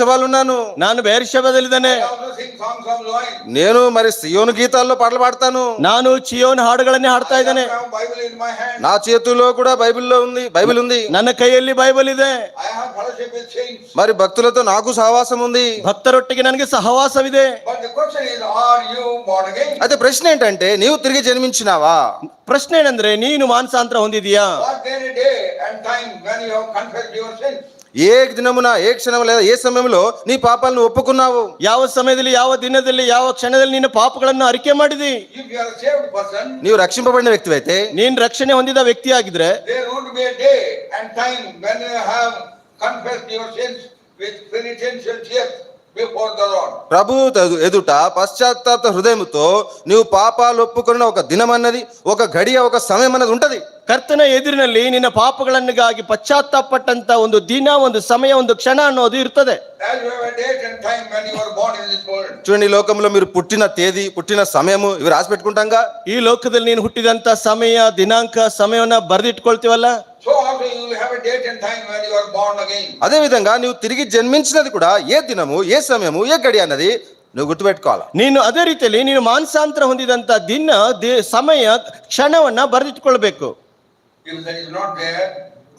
పేర్షవాలున్నాను ನಾನು ಬೇರ್ಷೆಬದಲ್ಲಿದ್ದೇನೆ I also sing songs of Loin. నేను మరి సియోను గీతాల్లో పాటలు పాడతాను ನಾನು ಚಿಯೋನ್ ಹಾಡುಗಳನ್ನೇ ಹಾಡ್ತಾ I ಇದ್ದೇನೆ have Bible in my hand. నా చేతుల్లో కూడా బైబిల్లో ఉంది బైబిల్ ఉంది ನನ್ನ ಕೈಯಲ್ಲಿ ಬೈಬಲ್ ಇದೆ I have fellowship with saints. మరి భక్తులతో నాకు సహవాసం ఉంది ಭಕ್ತರೊಟ್ಟಿಗೆ ನನಗೆ ಸಹವಾಸವಿದೆ But the question is, are you born again? అయితే ప్రశ్న ఏంటంటే నీవు తిరిగి జన్మించినావా ಪ್ರಶ್ನೆ ಏನಂದ್ರೆ ನೀನು ಮಾನಸಾಂತರ ಹೊಂದಿದೀಯಾ Was there a day and time when you have confessed your sins? ఏ దినమున ఏ క్షణం లేదా ఏ సమయంలో నీ పాపాలను ఒప్పుకున్నావు ಯಾವ ಸಮಯದಲ್ಲಿ ಯಾವ ದಿನದಲ್ಲಿ ಯಾವ ಕ್ಷಣದಲ್ಲಿ ನಿನ್ನ ಪಾಪಗಳನ್ನು ಅರಿಕೆ ಮಾಡಿದಿ If you are a saved person, నీవు ರక్షింపబడిన ವ್ಯಕ್తివైతే ನೀನ್ ರಕ್ಷಣೆ ಹೊಂದಿದ ವ್ಯಕ್ತಿ ಆಗಿದ್ರೆ there would be a day and time when you have confessed your sins with penitential tears before the Lord. ప్రభు తదు- ఎదుట పశ్చాత్తాప హృదయముతో నీవు పాపాలు ఒప్పుకున్న ఒక దినం అన్నది ఒక గడియ ఒక సమయం అన్నది ఉంటది ಕರ್ತನ ಎದುರಿನಲ್ಲಿ ನಿನ್ನ ಪಾಪಗಳನ್ನಿಗಾಗಿ ಪಶ್ಚಾತ್ತಾಪಟ್ಟಂತ ಒಂದು ದಿನ ಒಂದು ಸಮಯ ಒಂದು ಕ್ಷಣ ಅನ್ನೋದು ಇರ್ತದೆ As you have a date and time when you were born in this world. చూడండి ఈ లోకంలో మీరు పుట్టిన తేదీ పుట్టిన సమయము ఇవి రాసి పెట్టుకుంటాంగా ಈ ಲೋಕದಲ್ಲಿ ನೀನು ಹುಟ್ಟಿದಂತ ಸಮಯ ದಿನಾಂಕ ಸಮಯವನ್ನ ಬರೆದಿಟ್ಕೊಳ್ತೀವಲ್ಲ So also you will have a date and time when you are born again. అదే విధంగా నీవు తిరిగి జన్మించినది కూడా ఏ దినము ఏ సమయము ఏ గడి అన్నది నువ్వు గుర్తుపెట్టుకోవాలి ನೀನು ಅದೇ ರೀತಿಯಲ್ಲಿ ನೀನು ಮಾನಸಾಂತರ ಹೊಂದಿದಂತ ದಿನ ದಿ- ಸಮಯ ಕ್ಷಣವನ್ನ ಬರೆದಿಟ್ಕೊಳ್ಬೇಕು If that is not there,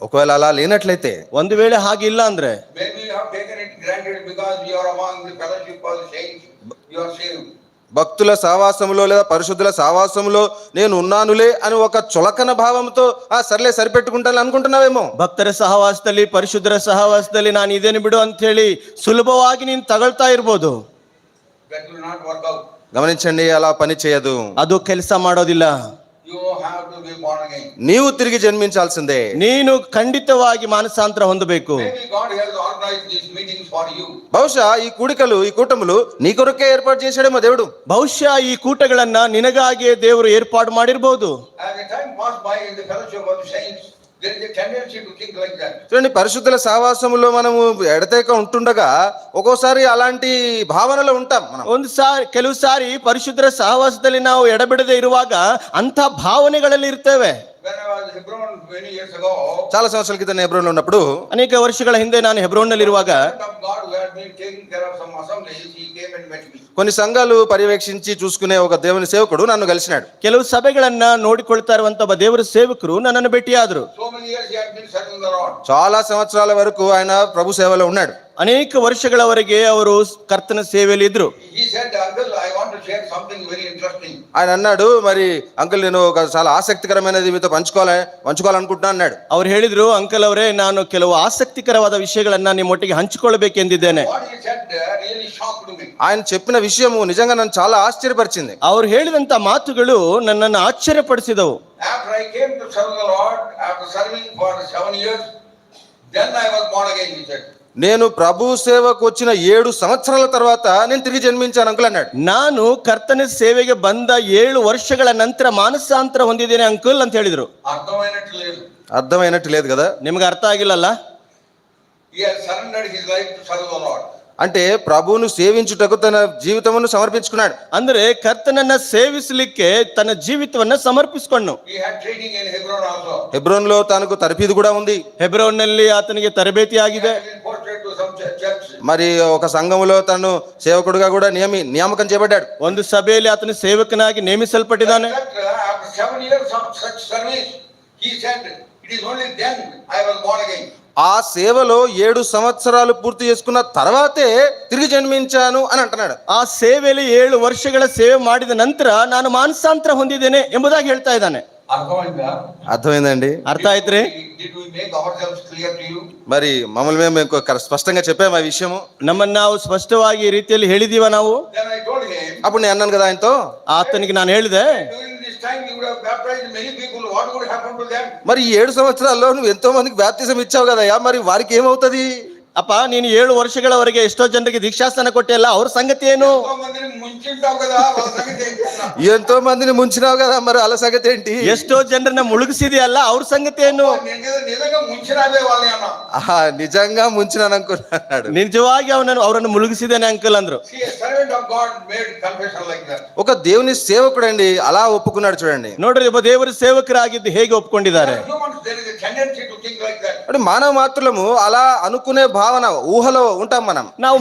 ఒకవేళ అలా లేనట్లయితే ಒಂದು ವೇಳೆ ಹಾಗಿಲ್ಲ ಅಂದ್ರೆ maybe you have taken it granted because you are among the fellowship of the saints, you are saved. భక్తుల సహవాసములో లేదా పరిశుద్ధుల సహవాసములో నేను ఉన్నానులే అని ఒక చులకన భావంతో ఆ సర్లే సరిపెట్టుకుంటాను అనుకుంటున్నావేమో ಭಕ್ತರ ಸಹವಾಸದಲ್ಲಿ ಪರಿಶುದ್ಧರ ಸಹವಾಸದಲ್ಲಿ ನಾನು ಇದೇನು ಬಿಡು ಅಂತ ಹೇಳಿ ಸುಲಭವಾಗಿ ನೀನು ತಗೊಳ್ತಾ ಇರ್ಬೋದು That will not work out. గమనించండి అలా పని చేయదు ಅದು ಕೆಲಸ ಮಾಡೋದಿಲ್ಲ You have to be born again. నీవు తిరిగి జన్మించాల్సిందే ನೀನು ಖಂಡಿತವಾಗಿ ಮಾನಸಾಂತರ ಹೊಂದಬೇಕು Maybe God has organized these meetings for you. బహుశా ఈ కూడికలు ఈ కూటములు నీ కొరకే ఏర్పాటు చేశాడేమో దేవుడు ಬಹುಶಃ ಈ ಕೂಟಗಳನ್ನ ನಿನಗಾಗಿಯೇ ದೇವರು ಏರ್ಪಾಡು ಮಾಡಿರ್ಬೋದು As the time passed by in the fellowship of the saints, there is a tendency to think like that. చూడండి పరిశుద్ధుల సహవాసములో మనము ఎడతేక ఉంటుండగా ఒక్కోసారి అలాంటి భావనలో ఉంటాం మనం ಒಂದು ಸಾರಿ ಕೆಲವು ಸಾರಿ ಪರಿಶುದ್ಧರ ಸಹವಾಸದಲ್ಲಿ ನಾವು ಎಡಬಿಡದೆ ಇರುವಾಗ ಅಂತ ಭಾವನೆಗಳಲ್ಲಿ ಇರ್ತೇವೆ When I was in Hebron many years ago, చాలా సంవత్సరాల క్రితం ఎబ్రోన్లో ఉన్నప్పుడు ಅನೇಕ ವರ್ಷಗಳ ಹಿಂದೆ ನಾನು ಹೆಬ್ರೋನ್ನಲ್ಲಿರುವಾಗ servant of God who had been taking care of some assemblies, he came and met me. కొన్ని సంఘాలు పర్యవేక్షించి చూసుకునే ఒక దేవుని సేవకుడు నన్ను కలిసినాడు ಕೆಲವು ಸಭೆಗಳನ್ನ ನೋಡಿಕೊಳ್ತಾ ಇರುವಂತ ಒಬ್ಬ ದೇವರ ಸೇವಕರು ನನ್ನನ್ನು ಭೇಟಿಯಾದರು So many years he had been serving the Lord. చాలా సంవత్సరాల వరకు ఆయన ప్రభు సేవలో ఉన్నాడు ಅನೇಕ ವರ್ಷಗಳವರೆಗೆ ಅವರು ಕರ್ತನ ಸೇವೆಯಲ್ಲಿ ಇದ್ರು He said, Uncle, I want to share something very interesting. ఆయన అన్నాడు మరి అంకుల్ నేను ఒక చాలా ఆసక్తికరమైనది మీతో పంచుకోవాలి పంచుకోవాలనుకుంటున్నా అన్నాడు ಅವ್ರು ಹೇಳಿದ್ರು ಅಂಕಲ್ ಅವರೇ ನಾನು ಕೆಲವು ಆಸಕ್ತಿಕರವಾದ ವಿಷಯಗಳನ್ನ ನಿಮ್ಮೊಟ್ಟಿಗೆ ಹಂಚಿಕೊಳ್ಬೇಕೆಂದಿದ್ದೇನೆ What he said uh, really shocked me. ఆయన చెప్పిన విషయము నిజంగా నన్ను చాలా ఆశ్చర్యపరిచింది ಅವ್ರು ಹೇಳಿದಂತ ಮಾತುಗಳು ನನ್ನನ್ನು ಆಶ್ಚರ್ಯಪಡಿಸಿದವು After I came to serve the Lord, after serving for seven years, then I was born again, he said. నేను ప్రభు సేవకు వచ్చిన ఏడు సంవత్సరాల తర్వాత నేను తిరిగి జన్మించాను అంకుల్ అన్నాడు ನಾನು ಕರ್ತನ ಸೇವೆಗೆ ಬಂದ ಏಳು ವರ್ಷಗಳ ನಂತರ ಮಾನಸಾಂತರ ಹೊಂದಿದ್ದೇನೆ ಅಂಕಲ್ ಅಂತ ಹೇಳಿದ್ರು అర్థమైనట్టు లేదు అర్థమైనట్టు లేదు కదా ನಿಮ್ಗೆ ಅರ್ಥ ಆಗಿಲ್ಲಲ್ಲ He has surrendered his life to serve the Lord. అంటే ప్రభువును సేవించుటకు తన జీవితమును సమర్పించుకున్నాడు ಅಂದ್ರೆ ಕರ್ತನನ್ನ ಸೇವಿಸಲಿಕ್ಕೆ ತನ್ನ ಜೀವಿತವನ್ನ ಸಮರ್ಪಿಸಿಕೊಂಡು He had training in Hebron also. హెబ్రోన్లో తనకు తరఫీదు కూడా ఉంది ಹೆಬ್ರೋನ್ನಲ್ಲಿ ಆತನಿಗೆ ತರಬೇತಿ He ಆಗಿದೆ had been posted to some chur- church. మరి ఒక సంఘములో తను సేవకుడుగా కూడా నియమి నియామకం చేయబడ్డాడు ಒಂದು ಸಭೆಯಲ್ಲಿ ಆತನು ಸೇವಕನಾಗಿ ನೇಮಿಸಲ್ಪಟ್ಟಿದ್ದಾನೆ But, uh, After seven years of such service, he said, it is only then I was born again. ఆ సేవలో ఏడు సంవత్సరాలు పూర్తి చేసుకున్న తర్వాతే తిరిగి జన్మించాను అని అంటున్నాడు ಆ ಸೇವೆಯಲ್ಲಿ ಏಳು ವರ್ಷಗಳ ಸೇವೆ ಮಾಡಿದ ನಂತರ ನಾನು ಮಾನಸಾಂತರ ಹೊಂದಿದ್ದೇನೆ ಎಂಬುದಾಗಿ ಹೇಳ್ತಾ ಇದ್ದಾನೆ అర్థమైందా అర్థమైందండి ಅರ್ಥ ಆಯ್ತ್ರಿ Did we make ourselves clear to you? మరి మమ్మల్ని మేము ఇంకొక స్పష్టంగా చెప్పాము ఆ విషయము ನಮ್ಮನ್ನ ನಾವು ಸ್ಪಷ್ಟವಾಗಿ ಈ ರೀತಿಯಲ್ಲಿ ಹೇಳಿದೀವ ನಾವು Then I told him, అప్పుడు నేను అన్నాను కదా ఆయనతో ಆತನಿಗೆ ನಾನು ಹೇಳಿದೆ during this time you would have baptized many people, what would happen to them? మరి ఈ ఏడు సంవత్సరాల్లో నువ్వు ఎంతో మందికి బ్యాప్తిజం ఇచ్చావు కదయ్యా మరి వారికి ఏమవుతుంది ಅಪ್ಪ ನೀನು ಏಳು ವರ್ಷಗಳವರೆಗೆ ಎಷ್ಟೋ ಜನರಿಗೆ ದೀಕ್ಷಾಸ್ಥಾನ ಕೊಟ್ಟಿಲ್ಲ ಅವ್ರ ಸಂಗತಿ ಏನು ఎంతో మందిని ముంచింటావు కదా వాళ్ళ సంగతి ఏం చేస్తున్నావు? ఎంతో మందిని ముంచినావు కదా మరి అలా సంగతి ఏంటి ಎಷ್ಟೋ ಜನರನ್ನ ಮುಳುಗಿಸಿದೆಯಲ್ಲ ಅವ್ರ ಸಂಗತಿ ಏನು నిజ- నిజంగా ముంచినావే వాళ్ళని అన్నా ఆహా, నిజంగా ముంచినాను అనుకున్నాడు ನಿಜವಾಗಿ ಅವನನ್ನು ಅವರನ್ನು ಮುಳುಗಿಸಿದ್ದೇನೆ ಅಂಕಲ್ ಅಂದ್ರು See, a servant of God made confession like that. ఒక దేవుని సేవకుడండి అలా ఒప్పుకున్నాడు చూడండి ನೋಡ್ರಿ ಒಬ್ಬ ದೇವರ ಸೇವಕರಾಗಿದ್ದು ಹೇಗೆ ಒಪ್ಕೊಂಡಿದ್ದಾರೆ As humans, there is a tendency to think like that. అంటే మానవ మాత్రులము అలా అనుకునే భావన ఊహలో ఉంటాం మనం ನಾವು